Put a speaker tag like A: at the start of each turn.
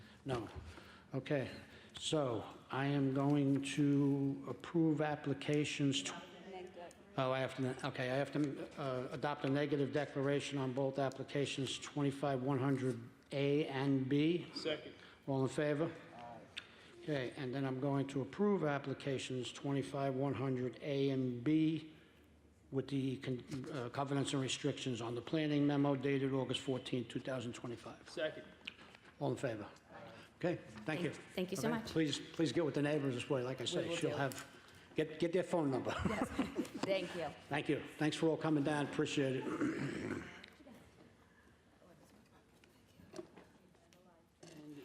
A: No. Okay, so I am going to approve applications to... Oh, I have to, okay, I have to uh, adopt a negative declaration on both applications 25100A and B.
B: Second.
A: All in favor? Okay, and then I'm going to approve applications 25-100A and B with the con- uh, covenants and restrictions on the planning memo dated August 14, 2025.
B: Second.
A: All in favor? Okay, thank you.
C: Thank you so
A: Okay,
C: much.
A: Please, please get with the neighbors this way, like I say,
C: will
A: she'll
C: do.
A: have, get, get their phone number.
C: Thank you.
A: Thank you. Thanks for all coming down, appreciate it.